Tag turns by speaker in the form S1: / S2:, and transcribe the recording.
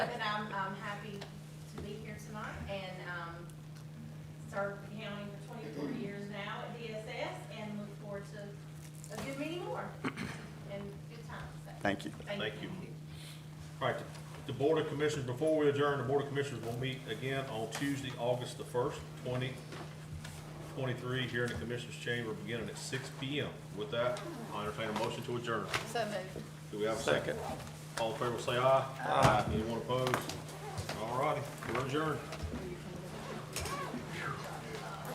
S1: served um, the county for twenty-four years now at DSS and look forward to a good many more and good times. so.
S2: Thank you.
S1: Thank
S3: Thank you. All right, the Board of Commissioners, before we adjourn, the Board of Commissioners will meet again on Tuesday, August the first, twenty twenty-three, here in the Commissioners' Chamber, beginning at six P M. With that, I entertain a motion to adjourn.
S4: So moved.
S3: Do we have a second? All in favor, say aye. Aye. Anyone opposed? All righty, we're adjourned.